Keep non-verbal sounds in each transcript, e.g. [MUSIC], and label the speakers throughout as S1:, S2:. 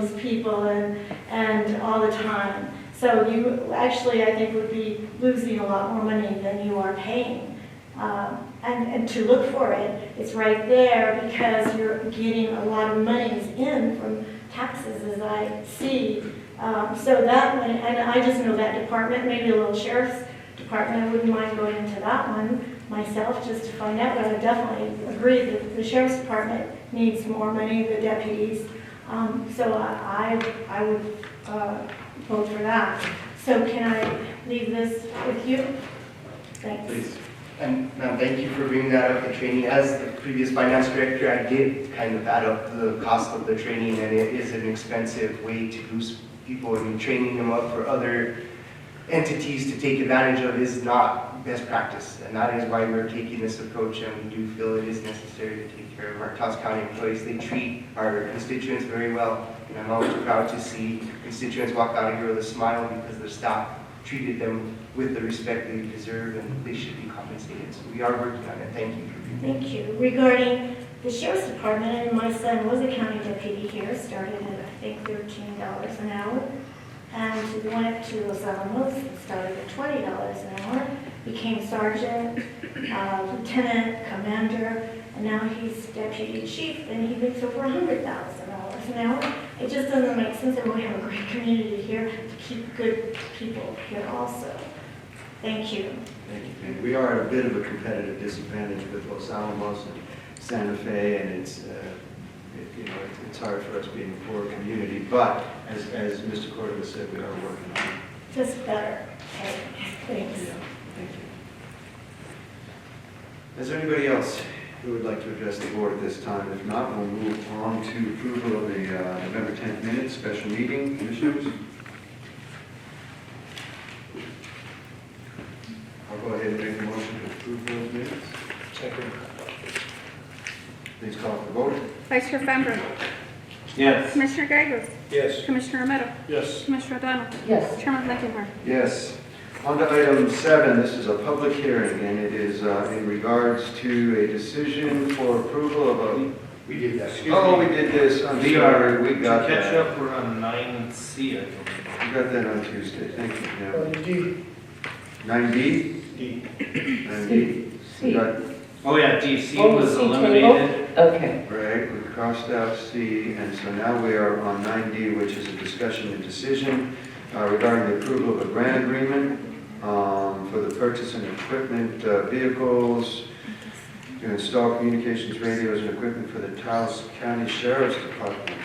S1: these people and, and all the time. So you actually, I think, would be losing a lot more money than you are paying. Um, And, and to look for it, it's right there because you're getting a lot of monies in from taxes, as I see. Um, So that one, and I just know that department, maybe a little sheriff's department, I wouldn't mind going into that one myself just to find out, but I definitely agree that the sheriff's department needs more money, the deputies. Um, So I, I I would uh, vote for that. So can I leave this with you? Thanks.
S2: Please. And ma'am, thank you for bringing that up, the training. As the previous finance director, I did kind of add up the cost of the training, and it is an expensive way to boost people. I mean, training them up for other entities to take advantage of is not best practice. And that is why we're taking this approach, and we do feel it is necessary to take care of our Taos County employees. They treat our constituents very well, and I'm always proud to see constituents walk out of here with a smile because their staff treated them with the respect they deserve and they should be compensated. So we are working on it. Thank you for being
S1: Thank you. Regarding the sheriff's department, and my son was a county deputy here, started at, I think, thirteen dollars an hour. And he went up to Los Alamos, and started at twenty dollars an hour, became sergeant, uh, lieutenant, commander, and now he's deputy chief, and he makes over a hundred thousand dollars an hour. It just doesn't make sense, and we have a great [LAUGHS] community here to keep good people here also. Thank you.
S3: Thank you, Penny. We are at a bit of a competitive disadvantage with Los Alamos and Santa Fe, and it's, uh, it- you know, it- it's hard for us being a poor community, but as, as Mr. Cordova said, we are working on it.
S1: Just better. Okay, thanks.
S3: Yeah, Thank you. Is there anybody else who would like to address the board at this time? If not, we'll move on to approval of the uh, November 10th minutes, special meeting, commissioners. I'll go ahead and make a motion to approve those minutes.
S2: Second.
S3: Please call for the vote.
S4: Vice Chair Fambro.
S5: Yes.
S4: Commissioner Gagos.
S5: Yes.
S4: Commissioner Romero.
S5: Yes.
S4: Commissioner O'Donnell.
S6: yes,
S4: Chairman Blankenhorn.
S3: Yes. On to item seven, this is a public hearing, and it is uh, in regards to a decision for approval of a...
S2: We did that.
S3: Oh, we did this, I'm
S5: We are,
S3: sorry, we got
S5: to catch
S3: that.
S5: up, we're on nine C, I believe.
S3: We got that on Tuesday, thank Oh, you,
S6: or
S3: Pam.
S6: D,
S3: Nine B?
S2: D.
S3: Nine B. We
S6: C.
S3: got,
S5: Oh, yeah, D C
S6: Oh,
S5: was
S6: C table?
S5: eliminated.
S6: Okay,
S3: right, we crossed out C, and so now we are on nine D, which is a discussion and decision uh, regarding the approval of a grant agreement um, for the purchase and equipment, uh, vehicles, to install communications radios and equipment for the Taos County Sheriff's Department.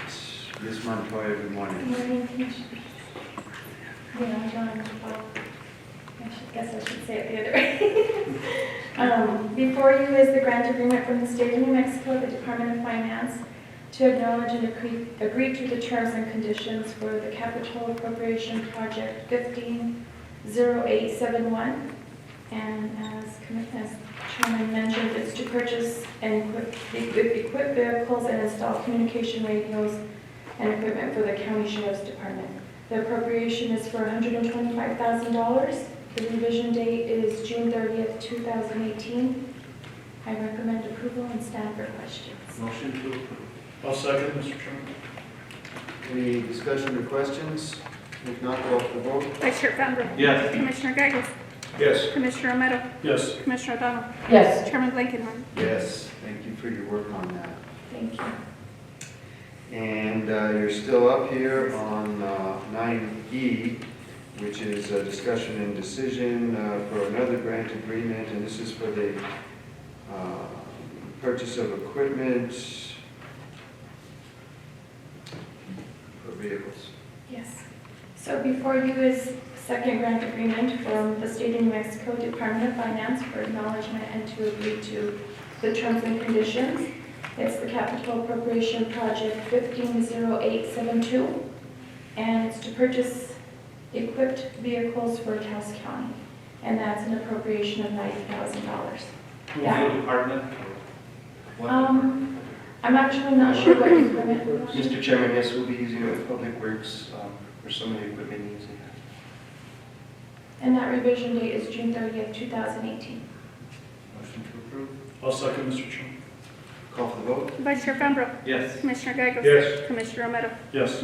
S3: Ms. Montoya, good
S1: Good
S3: morning.
S1: morning, Commissioner. Yeah, John, well, I should- guess I should say it the other way. [LAUGHS] Um, Before you is the grant agreement from the state of New Mexico, the Department of Finance, to acknowledge and agree- agree to the terms and conditions for the capital appropriation project 150871. And as commi- as Chairman mentioned, it's to purchase and equip- equip vehicles and install communication radios and equipment for the county sheriff's department. The appropriation is for $125,000. The revision date is June 30th, 2018. I recommend approval and stand for questions.
S5: Motion to approve.
S7: I'll second, Mr. Chairman.
S3: Any discussion or questions? If not, call for the vote.
S4: Vice Chair Fambro.
S5: Yes.
S4: Commissioner Gagos.
S5: Yes.
S4: Commissioner Romero.
S7: Yes.
S4: Commissioner O'Donnell.
S6: yes,
S4: Chairman Blankenhorn.
S3: Yes, thank you for your work on that.
S1: Thank you.
S3: And uh, you're still up here on uh, 9E, which is a discussion and decision uh, for another grant agreement, and this is for the uh, purchase of equipment for vehicles.
S1: Yes. So before you is second grant agreement from the State of New Mexico Department of Finance for acknowledgement and to agree to the terms and conditions. It's the capital appropriation project 150872, and it's to purchase equipped vehicles for Taos County, and that's an appropriation of $90,000.
S5: Who's
S1: Yeah.
S5: the department? What
S1: Um, I'm actually not sure what department it was.
S2: Mr. Chairman, yes, we'll be using it with Public Works um, for some of the equipment needs. they have.
S1: and that revision date is June 30th, 2018.
S5: department? Motion to approve.
S7: I'll second, Mr. Chairman.
S3: Call for the vote?
S4: Vice Chair Fambro.
S5: Yes.
S4: Commissioner Gagos.
S7: Yes.
S4: Commissioner Romero.
S7: Yes.